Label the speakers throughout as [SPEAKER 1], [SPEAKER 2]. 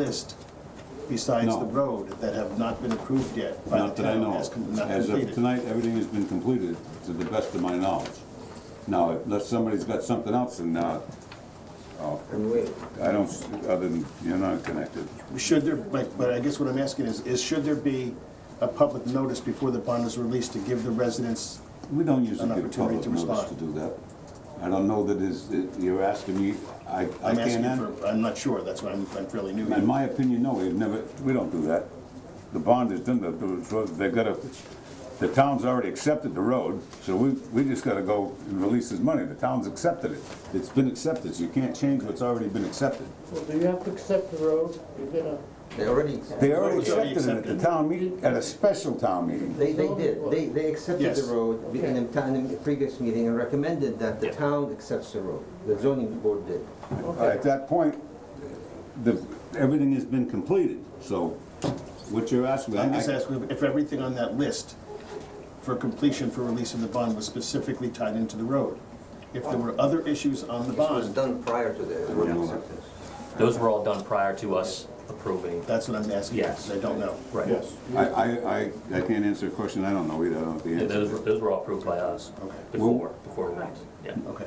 [SPEAKER 1] list besides
[SPEAKER 2] No.
[SPEAKER 1] the road that have not been approved yet by the
[SPEAKER 2] Not that I
[SPEAKER 1] town
[SPEAKER 2] know
[SPEAKER 1] as com-
[SPEAKER 2] of.
[SPEAKER 1] not
[SPEAKER 2] As of
[SPEAKER 1] completed?
[SPEAKER 2] tonight, everything has been completed to the best of my knowledge. Now, unless somebody's got something else and, uh, oh,
[SPEAKER 3] And wait,
[SPEAKER 2] I don't, s- other than, you're not connected.
[SPEAKER 1] Should there, but, but I guess what I'm asking is, is should there be a public notice before the bond is released to give the residents?
[SPEAKER 2] We don't usually
[SPEAKER 1] An
[SPEAKER 2] give
[SPEAKER 1] opportunity
[SPEAKER 2] public
[SPEAKER 1] to
[SPEAKER 2] notice to
[SPEAKER 1] respond.
[SPEAKER 2] do that. I don't know that is, that you're asking me, I, I
[SPEAKER 1] I'm asking
[SPEAKER 2] can't answer.
[SPEAKER 1] for, I'm not sure, that's why I'm, I'm fairly new.
[SPEAKER 2] In
[SPEAKER 1] here.
[SPEAKER 2] my opinion, no, we've never, we don't do that. The bond is done, the- they've got to, the town's already accepted the road, so we, we just got to go and release this money. The town's accepted it. It's been accepted, so you can't change what's already been accepted.
[SPEAKER 4] Well, do you have to accept the road? You're gonna,
[SPEAKER 3] they already,
[SPEAKER 2] They already
[SPEAKER 1] It's already
[SPEAKER 2] accepted it at the
[SPEAKER 1] accepted.
[SPEAKER 2] town meeting, at a special town meeting.
[SPEAKER 3] they, they did, they, they accepted
[SPEAKER 1] Yes.
[SPEAKER 3] the road in the town, in the previous meeting and recommended that the town accepts the road. The zoning board did.
[SPEAKER 2] At that point, the, everything has been completed, so what you're asking.
[SPEAKER 1] I'm just
[SPEAKER 2] I-
[SPEAKER 1] asking if everything on that list for completion for release of the bond was specifically tied into the road. If there were other issues on the
[SPEAKER 3] This was
[SPEAKER 1] bond,
[SPEAKER 3] done prior to the road acceptance.
[SPEAKER 5] Those were all done prior to us approving.
[SPEAKER 1] that's what I'm asking, because
[SPEAKER 5] Yes.
[SPEAKER 1] I don't know.
[SPEAKER 5] Right.
[SPEAKER 2] I, I, I, I can't answer a question I don't know either, I don't have the
[SPEAKER 5] Yeah,
[SPEAKER 2] answer.
[SPEAKER 5] Those, were- those were all approved by us
[SPEAKER 1] Okay.
[SPEAKER 5] before, before we went, yeah.
[SPEAKER 1] Okay.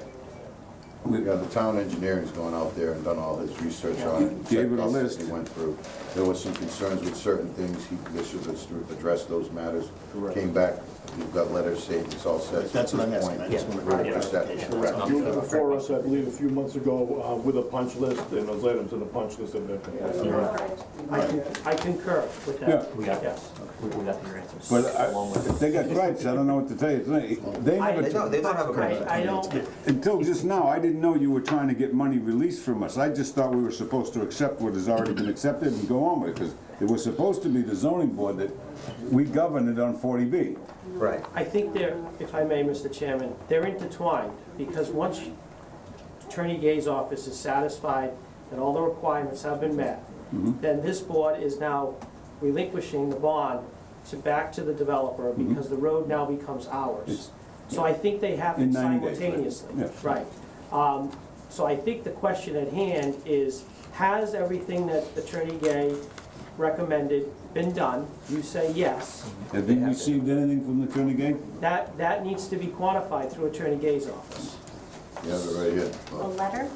[SPEAKER 6] We got the town engineer's gone out there and done all his research on it. and
[SPEAKER 2] Gave it a
[SPEAKER 6] checked us as
[SPEAKER 2] list.
[SPEAKER 6] He went through. There was some concerns with certain things, he, they should have addressed those matters. Came back, you've got letters saying it's all set.
[SPEAKER 1] That's what I'm asking, I just
[SPEAKER 5] Yeah.
[SPEAKER 1] want
[SPEAKER 6] Right,
[SPEAKER 1] to.
[SPEAKER 6] just that.
[SPEAKER 5] Correct.
[SPEAKER 7] You were before us, I believe, a few months ago uh, with a punch list, and those items in the punch list have been
[SPEAKER 4] I con- I concur with
[SPEAKER 2] Yeah.
[SPEAKER 4] that.
[SPEAKER 5] We got, yes, we we got your answers.
[SPEAKER 2] But I-
[SPEAKER 5] along with-
[SPEAKER 2] if they got gripes, I don't know what to tell you tonight. They never,
[SPEAKER 3] They don't, they don't have a
[SPEAKER 4] I,
[SPEAKER 3] permit.
[SPEAKER 4] I don't,
[SPEAKER 2] until just now, I didn't know you were trying to get money released from us. I just thought we were supposed to accept what has already been accepted and go on with it, because it was supposed to be the zoning board that we governed it on forty B.
[SPEAKER 3] Right.
[SPEAKER 4] I think they're, if I may, Mr. Chairman, they're intertwined, because once Attorney Gay's office is satisfied that all the requirements have been met,
[SPEAKER 2] Mm-hmm.
[SPEAKER 4] then this board is now relinquishing the bond to, back to the developer,
[SPEAKER 2] Mm-hmm.
[SPEAKER 4] because the road now becomes ours. So I think they have
[SPEAKER 2] In 90
[SPEAKER 4] it
[SPEAKER 2] days, right?
[SPEAKER 4] simultaneously.
[SPEAKER 2] Yeah.
[SPEAKER 4] Right. Um, So I think the question at hand is, has everything that Attorney Gay recommended been done? You say yes
[SPEAKER 2] Have you received anything from the attorney gang?
[SPEAKER 4] that, that needs to be quantified through Attorney Gay's office.
[SPEAKER 6] You have it right here.
[SPEAKER 8] the
[SPEAKER 6] Well,
[SPEAKER 8] letter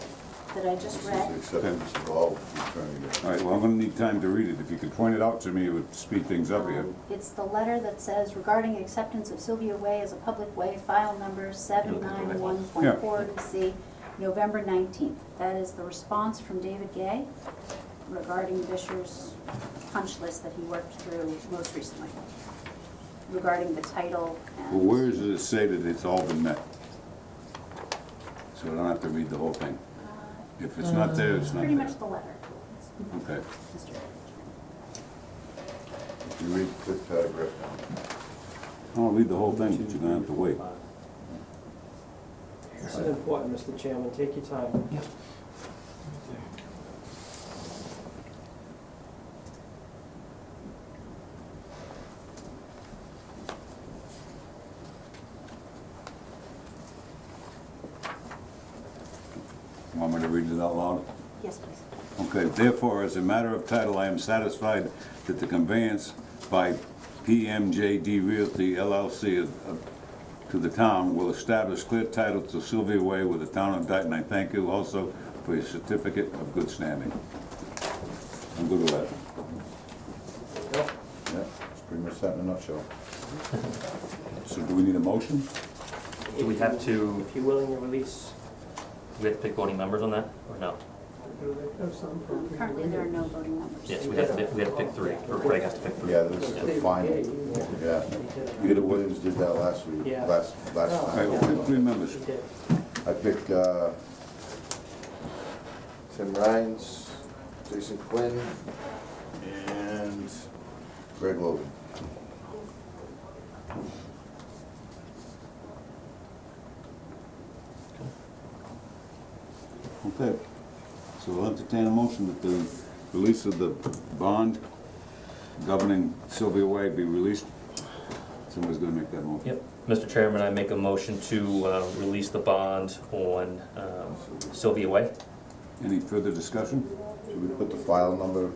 [SPEAKER 8] that I just
[SPEAKER 6] this is
[SPEAKER 8] read
[SPEAKER 6] the acceptance of all the attorney.
[SPEAKER 2] All right, well, I'm gonna need time to read it. If you could point it out to me, it would speed things up here.
[SPEAKER 8] Um, It's the letter that says regarding acceptance of Sylvia Way as a public way, file number seven nine one point four C, November nineteenth. That is the response from David Gay regarding Fisher's punch list that he worked through most recently, regarding the title
[SPEAKER 2] Well,
[SPEAKER 8] and.
[SPEAKER 2] where does it say that it's all been met? So I don't have to read the whole thing. If it's not there, it's not
[SPEAKER 8] Uh, Pretty much
[SPEAKER 2] there.
[SPEAKER 8] the letter. It's
[SPEAKER 2] Okay.
[SPEAKER 8] Mr.
[SPEAKER 6] If you read the fifth paragraph down.
[SPEAKER 2] I'll read the whole thing, but you're gonna have to wait.
[SPEAKER 4] This is important, Mr. Chairman, take your time.
[SPEAKER 2] Want me to read it out loud?
[SPEAKER 8] Yes, please.
[SPEAKER 2] Okay, therefore, as a matter of title, I am satisfied that the conveyance by PMJD Realty LLC of- of- to the town will establish clear title to Sylvia Way with the town of Dayton. I thank you also for your certificate of good standing. I'm good with that.
[SPEAKER 6] Yeah, it's pretty much that in a nutshell.
[SPEAKER 2] So do we need a motion?
[SPEAKER 5] Do we have to,
[SPEAKER 4] If you're willing to release.
[SPEAKER 5] do we have to pick voting members on that, or no?
[SPEAKER 8] Um, Currently, there are no voting members.
[SPEAKER 5] Yes, we have to, we have to pick three, or Craig has to pick three.
[SPEAKER 6] Yeah, this is the final, yeah. Peter Williams did that last week,
[SPEAKER 4] Yeah.
[SPEAKER 6] last, last
[SPEAKER 2] All right,
[SPEAKER 6] time.
[SPEAKER 2] well, pick three members.
[SPEAKER 4] He did.
[SPEAKER 6] I picked, uh, Tim Rhines, Jason Quinn, and Greg Logan.
[SPEAKER 2] Okay. So we'll entertain a motion that the release of the bond governing Sylvia Way be released. Somebody's gonna make that motion.
[SPEAKER 5] Yep. Mr. Chairman, I make a motion to uh, release the bond on um, Sylvia Way.
[SPEAKER 2] Any further discussion?
[SPEAKER 6] Should we put the file number